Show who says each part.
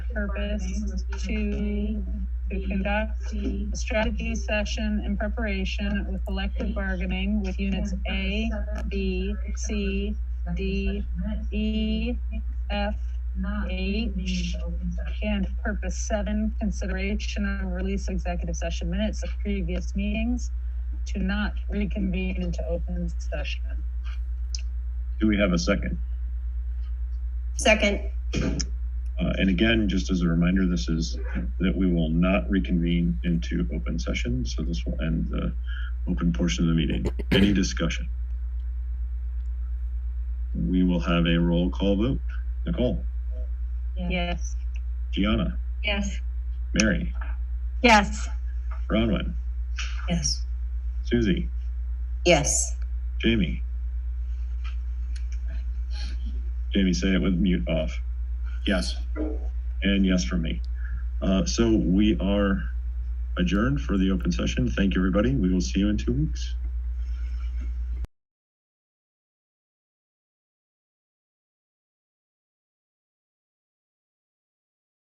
Speaker 1: purpose to, to conduct a strategy session in preparation with collective bargaining with units A, B, C, D, E, F, H, and purpose seven, consideration of release of executive session minutes of previous meetings to not reconvene into open session.
Speaker 2: Do we have a second?
Speaker 3: Second,
Speaker 2: Uh, and again, just as a reminder, this is that we will not reconvene into open session. So this will end the open portion of the meeting. Any discussion? We will have a roll call vote. Nicole,
Speaker 1: Yes.
Speaker 2: Gianna,
Speaker 1: Yes.
Speaker 2: Mary,
Speaker 1: Yes.
Speaker 2: Bronwyn,
Speaker 3: yes.
Speaker 2: Susie,
Speaker 3: Yes.
Speaker 2: Jamie. Jamie, say it with mute off. Yes. And yes from me. Uh, so we are adjourned for the open session. Thank you, everybody. We will see you in two weeks.